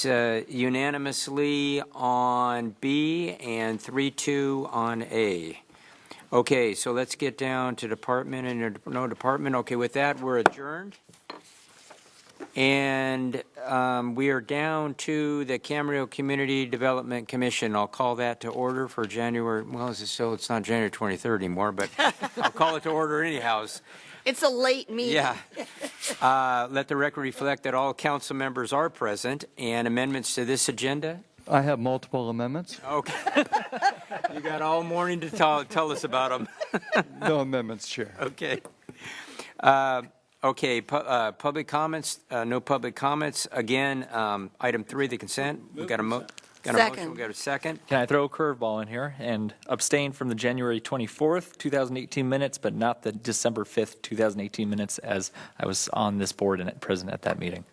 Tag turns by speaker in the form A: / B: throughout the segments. A: carries uh, unanimously on B and 3-2 on A. Okay, so let's get down to department and, no department. Okay, with that, we're adjourned. And um, we are down to the Camarillo Community Development Commission. I'll call that to order for January, well, is it still, it's not January 23rd anymore, but I'll call it to order anyhow.
B: It's a late meeting.
A: Yeah. Uh, Let the record reflect that all council members are present, and amendments to this agenda?
C: I have multiple amendments.
A: Okay. You got all morning to tell, tell us about them.
C: No amendments, Chair.
A: Okay. Uh, Okay, pu- uh, public comments, uh, no public comments. Again, um, item three, the consent. We got a mo, got a motion,
B: Second.
A: we got a second.
D: Can I throw a curveball in here and abstain from the January 24th, 2018 minutes, but not the December 5th, 2018 minutes, as I was on this board and at present at that meeting?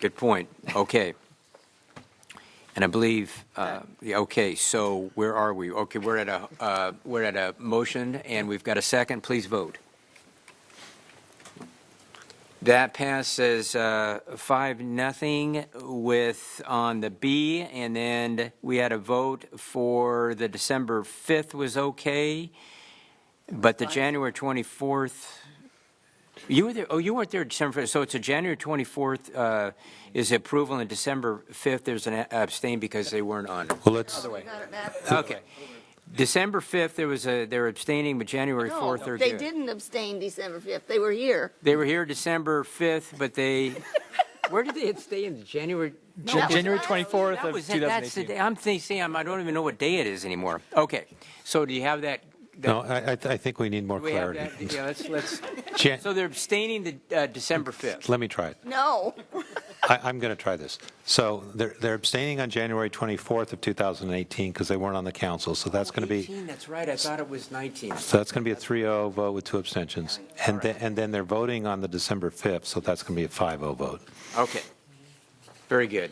A: Good point. Okay. And I believe, uh, yeah, okay, so where are we? Okay, we're at a, uh, we're at a motion, and we've got a second. Please vote. That passes uh, five, nothing with, on the B, and then we had a vote for the December 5th was okay, but the January 24th, you were there, oh, you weren't there December 5th, so it's a January 24th uh, is approval, and December 5th, there's an abstain because they weren't on. it.
E: Well, let's,
B: We got it back.
A: Okay. December 5th, there was a, they were abstaining, but January
B: No,
A: 4th or
B: They didn't abstain December 5th. They were here.
A: They were here December 5th, but they, where did they stay in January?
B: that was
D: January
B: last-
D: 24th
A: That
D: of
A: was it. That's the
D: 2018.
A: day, I'm thinking, I'm- I don't even know what day it is anymore. Okay, so do you have that? that-
E: no, I, I th- I think we need more
A: Do we have that?
E: clarity.
A: Yeah, let's, let's,
E: Jan-
A: so they're abstaining the uh, December 5th.
E: Let me try it.
B: No.
E: I, I'm going to try this. So they're, they're abstaining on January 24th of 2018 because they weren't on the council, so that's going to be,
A: 18, that's right, I thought it was 19.
E: so that's going to be a 3-0 vote with two abstentions. And then, and then they're voting on the December 5th, so that's going to be a 5-0 vote.
A: Okay, very good.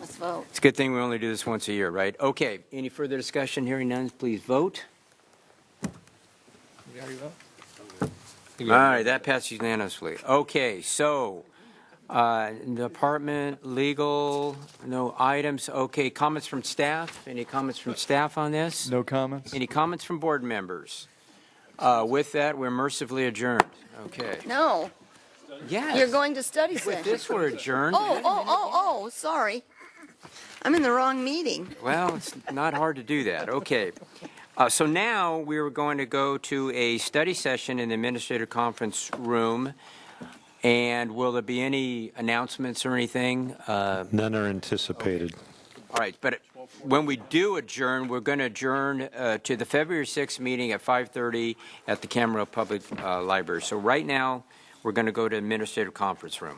B: Let's vote.
A: It's a good thing we only do this once a year, right? Okay, any further discussion? Hearing none, please vote. All right, that passes unanimously. Okay, so, uh, department, legal, no items. Okay, comments from staff? Any comments from staff on this?
C: No comments?
A: Any comments from board members? Uh, With that, we're mercifully adjourned. Okay.
B: No.
A: Yes.
B: You're going to study
A: With
B: session.
A: this, we're adjourned.
B: Oh, oh, oh, oh, sorry. I'm in the wrong meeting.
A: Well, it's not hard to do that. Okay. Uh, so now we are going to go to a study session in the administrative conference room. And will there be any announcements or anything? Uh,
E: None are anticipated.
A: all right, but when we do adjourn, we're going to adjourn uh, to the February 6th meeting at 5:30 at the Camarillo Public uh, Library. So right now, we're going to go to administrative conference room.